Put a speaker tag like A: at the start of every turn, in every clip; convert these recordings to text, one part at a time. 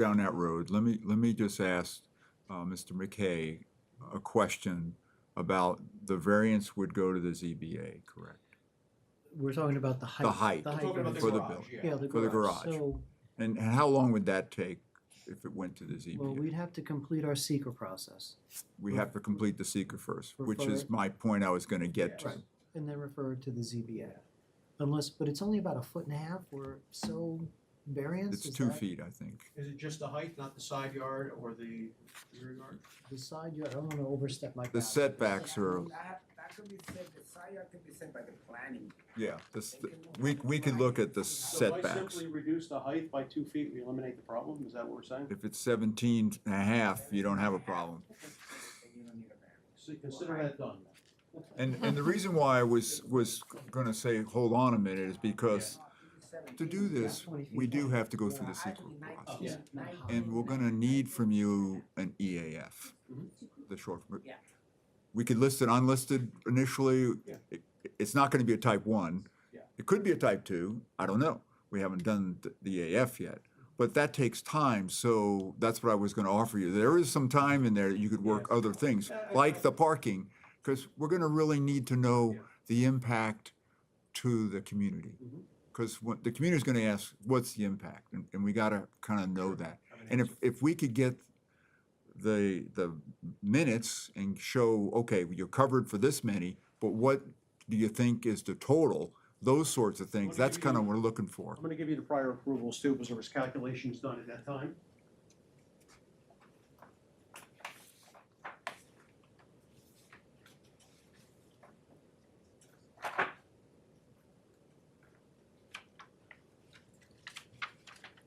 A: down that road, let me, let me just ask uh, Mr. McKay a question about the variance would go to the ZBA, correct?
B: We're talking about the height.
A: height.
B: The
A: We're
B: height.
C: Talking about the
B: variance.
A: For the
C: garage,
A: building.
B: Yeah,
C: yeah.
B: the
A: For the
B: garage.
A: garage.
B: So,
A: And and how long would that take if it went to the
B: well,
A: ZBA?
B: we'd have to complete our seeker process
A: We have to complete the seeker first,
B: Refer
A: which is
B: it.
A: my point I was gonna get
C: Yeah.
A: to.
C: Right.
B: and then refer it to the ZBA. Unless, but it's only about a foot and a half or so variance.
A: It's
B: is
A: two
B: that
A: feet, I think.
C: Is it just the height, not the side yard or the rear yard?
B: The side yard, I don't wanna overstep my.
A: The
B: bounds.
A: setbacks are,
D: That, that could be said, the side yard could be said by the planning.
A: yeah, this,
D: They can move
A: we,
D: back
A: we
D: the
A: could
D: line.
A: look at the
D: So
C: So if I
A: setbacks.
C: simply reduce the height by two feet, we eliminate the problem, is that what we're saying?
A: If it's 17 and a half, you don't have a problem.
D: And you don't need a variance.
C: So consider that done.
A: And, and the reason why I was, was gonna say, hold on a minute, is because to do this, we do have to go through the seeker process.
C: Yeah.
A: And we're gonna need from you an EAF, the short.
D: Yeah.
A: We could list it unlisted initially.
C: Yeah.
A: It- It's not gonna be a type one.
C: Yeah.
A: It could be a type two, I don't know. We haven't done th- the EAF yet. But that takes time, so that's what I was gonna offer you. There is some time in there that you could work other things,
C: Yeah, I-
A: like the parking, because we're gonna really need to know
C: Yeah.
A: the impact to the community.
C: Mhm.
A: Because what, the community's gonna ask, what's the impact? And, and we gotta kind of know that. And if, if we could get the, the minutes and show, okay, you're covered for this many, but what do you think is the total? Those sorts of things,
C: What do
A: that's
C: you
A: kind of
C: do?
A: what we're looking for.
C: I'm gonna give you the prior approvals too, because there was calculations done at that time.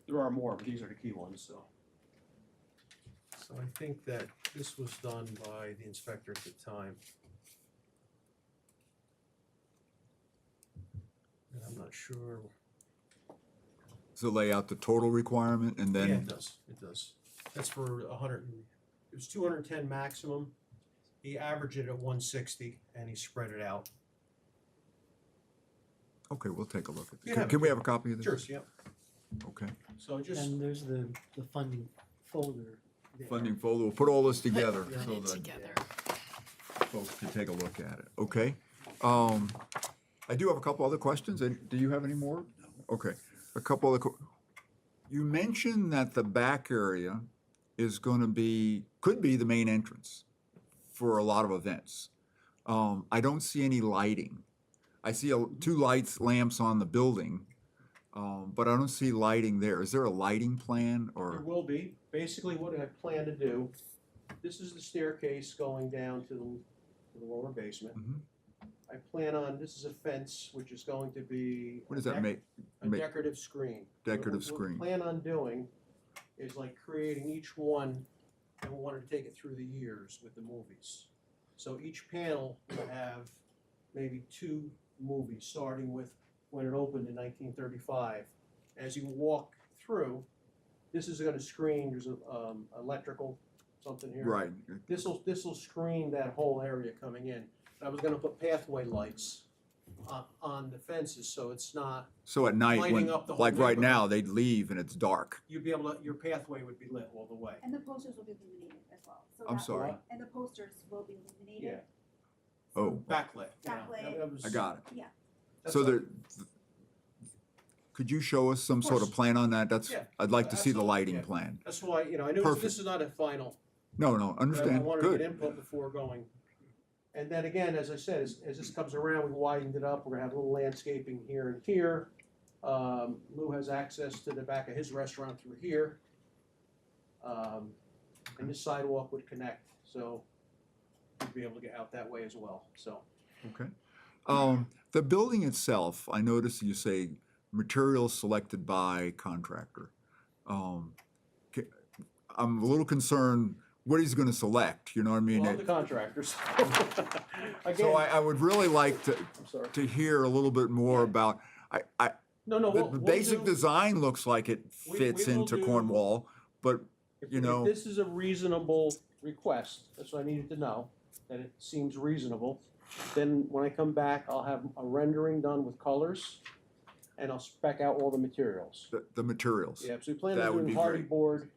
C: There are more, but these are the key ones, so.
E: So I think that this was done by the inspector at the time. And I'm not sure.
A: So lay out the total requirement and
E: Yeah, it
A: then,
E: does, it does. That's for a hundred and, it was two hundred and ten maximum. He averaged it at one sixty and he spread it out.
A: okay, we'll take a look at
E: Yeah.
A: it. Can- Can we have a copy of this?
E: Cheers, yep.
A: Okay.
E: So just,
B: And there's the, the funding folder. there.
A: Funding folder, we'll put all this together
B: Yeah.
A: so
F: Put it
A: that
F: together.
A: folks can take a look at it, okay? Um, I do have a couple other questions, and do you have any more? Okay, a couple other, que- you mentioned that the back area is gonna be, could be the main entrance for a lot of events. Um, I don't see any lighting. I see a- two lights, lamps on the building, um, but I don't see lighting there. Is there a lighting plan
E: There
A: or,
E: will be. Basically, what I plan to do, this is the staircase going down to the, to the lower basement.
A: Mhm.
E: I plan on, this is a fence, which is going to be.
A: what
E: a
A: does that
E: dec-
A: make?
E: A
A: make-
E: decorative screen. What-
A: Decorative
E: what-
A: screen.
E: What I plan on doing is like creating each one, and we wanted to take it through the years with the movies. So each panel will have maybe two movies, starting with when it opened in nineteen thirty-five. As you walk through, this is gonna screen, there's a, um, electrical, something here.
A: Right,
E: This'll, this'll screen that whole area coming in. I was gonna put pathway lights on, on the fences, so it's not,
A: so at night,
E: Lighting
A: when,
E: up the whole
A: like right
E: neighborhood.
A: now, they'd leave and it's dark.
E: you'd be able to, your pathway would be lit all the way.
G: And the posters will be illuminated as well. So
A: I'm
G: that-
A: sorry.
G: And the posters will be illuminated.
A: Oh,
E: Backlit.
G: yeah. Backlit.
A: I got it.
G: Yeah.
A: So there, th- could you show us some sort of
E: course.
A: plan on that? That's,
E: Yeah,
A: I'd like to see the
E: absolutely,
A: lighting
E: yeah.
A: plan.
E: That's why, you know, I know
A: Perfect.
E: this is not a final.
A: No, no,
E: but I
A: understand,
E: wanted to get
A: good.
E: input before going. And then again, as I said, as, as this comes around, we widened it up. We're gonna have a little landscaping here and here. Um, Lou has access to the back of his restaurant through here. Um, and this sidewalk would connect, so we'd be able to get out that way as well, so.
A: Okay. Um, the building itself, I noticed you say materials selected by contractor. Um, ca- I'm a little concerned what he's gonna select, you know what I mean?
E: Well, I'm the
A: It-
E: contractors.
A: So I,
E: Again,
A: I would really like to,
E: I'm sorry.
A: to hear a little bit more about, I, I,
E: No, no,
A: the
E: we'll,
A: the
E: we'll
A: basic
E: do-
A: design looks like it
E: We-
A: fits
E: we will
A: into
E: do-
A: Cornwall, but
E: If-
A: you
E: if
A: know-
E: This is a reasonable request, that's what I needed to know, that it seems reasonable. Then when I come back, I'll have a rendering done with colors, and I'll spec out all the materials.
A: the, the materials.
E: Yeah, so we plan
A: That
E: on
A: would be
E: doing hardy
A: great.
E: board